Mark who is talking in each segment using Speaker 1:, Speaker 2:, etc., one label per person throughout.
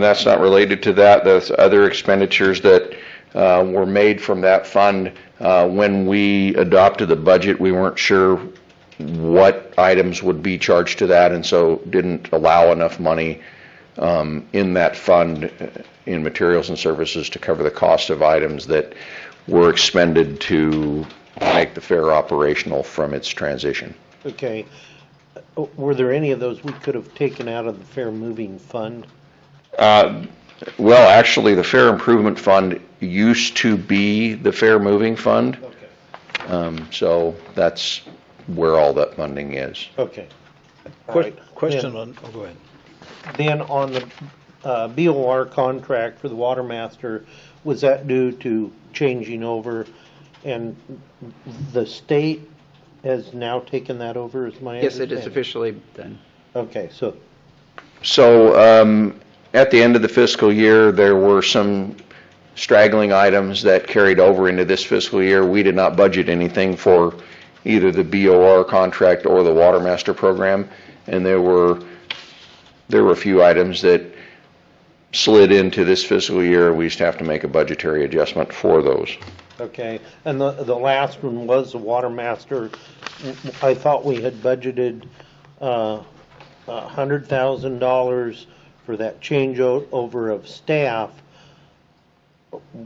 Speaker 1: That's not related to that, that's other expenditures that uh, were made from that fund. Uh, When we adopted the budget, we weren't sure what items would be charged to that, and so didn't allow enough money um, in that fund uh, in materials and services to cover the cost of items that were expended to make the fair operational from its transition.
Speaker 2: Okay. Uh, Were there any of those we could have taken out of the fair moving fund?
Speaker 1: Well, actually, the Fair Improvement Fund used to be the Fair Moving Fund.
Speaker 2: Okay.
Speaker 1: Um, So that's where all that funding is.
Speaker 2: Okay. All
Speaker 3: Que-
Speaker 2: right.
Speaker 3: Question
Speaker 2: Then-
Speaker 3: on, oh, go ahead.
Speaker 2: Then on the uh, BOR contract for the water master, was that due to changing over? And the state has now taken that over, is my
Speaker 4: Yes,
Speaker 2: understanding?
Speaker 4: it is officially done.
Speaker 2: Okay, so,
Speaker 1: So um, at the end of the fiscal year, there were some straggling items that carried over into this fiscal year. We did not budget anything for either the BOR contract or the Water Master Program, and there were, there were a few items that slid into this fiscal year. We just have to make a budgetary adjustment for those.
Speaker 2: okay. And the, the last one was the water master. I thought we had budgeted uh, a hundred thousand dollars for that changeover of staff.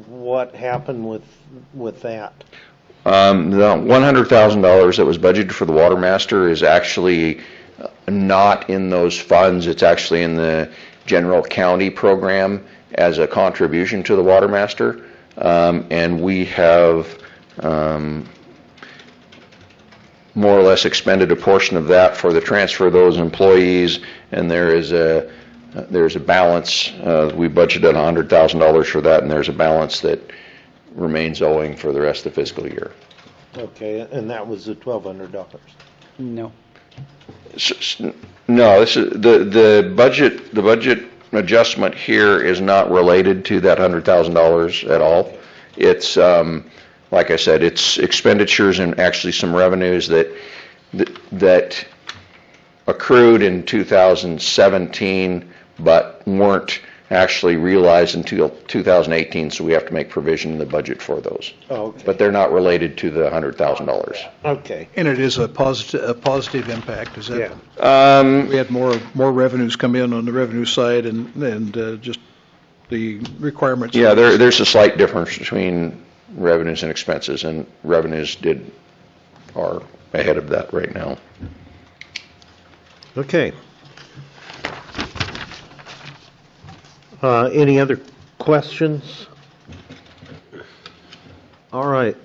Speaker 2: What happened with, with that?
Speaker 1: Um, The $100,000 that was budgeted for the Water Master is actually not in those funds. It's actually in the general county program as a contribution to the Water Master. Um, And we have um, more or less expended a portion of that for the transfer of those employees. And there is a, there's a balance, uh, we budgeted $100,000 for that, and there's a balance that remains owing for the rest of the fiscal year.
Speaker 2: Okay, and that was the twelve hundred dollars.
Speaker 4: No.
Speaker 1: S- s- No, this is, the, the budget, the budget adjustment here is not related to that hundred thousand dollars at all. It's, um, like I said, it's expenditures and actually some revenues that, that accrued in two thousand seventeen, but weren't actually realized until two thousand eighteen, so we have to make provision in the budget for those.
Speaker 2: Okay,
Speaker 1: But they're not related to the hundred thousand dollars.
Speaker 2: okay,
Speaker 3: And it is a positive, a positive impact, is that?
Speaker 2: Yeah.
Speaker 1: Um,
Speaker 3: We had more, more revenues come in on the revenue side and, and uh, just the requirements.
Speaker 1: Yeah, there, there's a slight difference between revenues and expenses, and revenues did, are ahead of that right now.
Speaker 2: okay. Uh, any other questions? All right,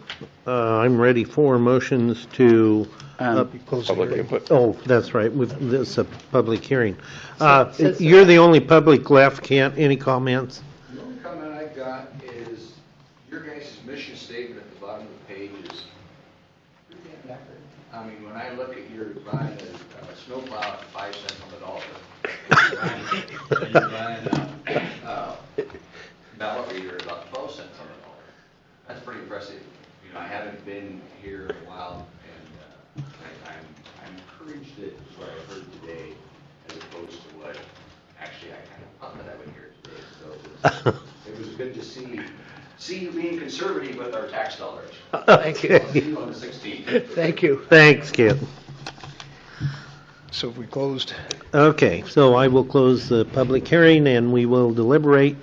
Speaker 2: uh, I'm ready for motions to,
Speaker 4: Um,
Speaker 3: Close the
Speaker 1: Public
Speaker 3: hearing.
Speaker 1: input.
Speaker 2: oh, that's right, with, this is a public hearing. Uh,
Speaker 4: So- so-
Speaker 2: you're the only public left, Kent, any comments?
Speaker 5: The only comment I got is, your guys' mission statement at the bottom of the page is, I mean, when I look at your buying a a snowplow at five cents on the dollar, and you're buying a uh, ballot reader at about twelve cents on the dollar, that's pretty impressive. You know, I haven't been here in a while, and uh, I- I'm I'm encouraged that what I heard today, as opposed to what, actually, I kind of thought that I would hear today, so it was- it was good to see, see you being conservative with our tax dollars.
Speaker 4: Thank you.
Speaker 5: See you on the 16th.
Speaker 4: Thank you.
Speaker 2: Thanks, Kent.
Speaker 3: So we closed.
Speaker 2: Okay, so I will close the public hearing and we will deliberate.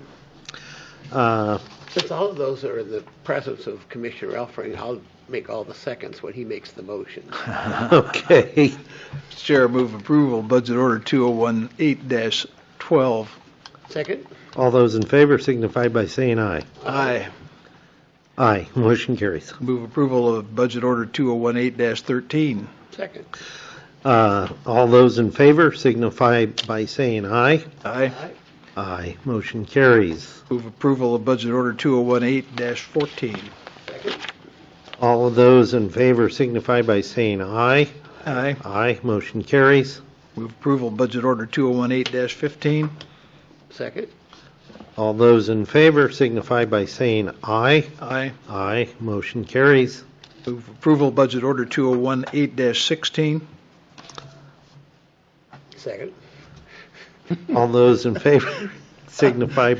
Speaker 2: Uh,
Speaker 6: Since all of those are in the presence of Commissioner Elfring, I'll make all the seconds when he makes the motion.
Speaker 2: Okay,
Speaker 3: Mr. Chair, move approval, budget order 2018-12.
Speaker 6: Second?
Speaker 2: all those in favor signify by saying aye.
Speaker 3: Aye.
Speaker 2: Aye, motion carries.
Speaker 3: Move approval of budget order 2018-13.
Speaker 6: Second.
Speaker 2: Uh, All those in favor signify by saying aye.
Speaker 3: Aye.
Speaker 2: Aye, motion carries.
Speaker 3: Move approval of budget order 2018-14.
Speaker 6: Second?
Speaker 2: All of those in favor signify by saying aye.
Speaker 3: Aye.
Speaker 2: Aye, motion carries.
Speaker 3: Move approval of budget order 2018-15.
Speaker 6: Second?
Speaker 2: All those in favor signify by saying aye.
Speaker 3: Aye.
Speaker 2: Aye, motion carries.
Speaker 3: Move approval budget order 2018-16.
Speaker 6: Second?
Speaker 2: All those in favor signify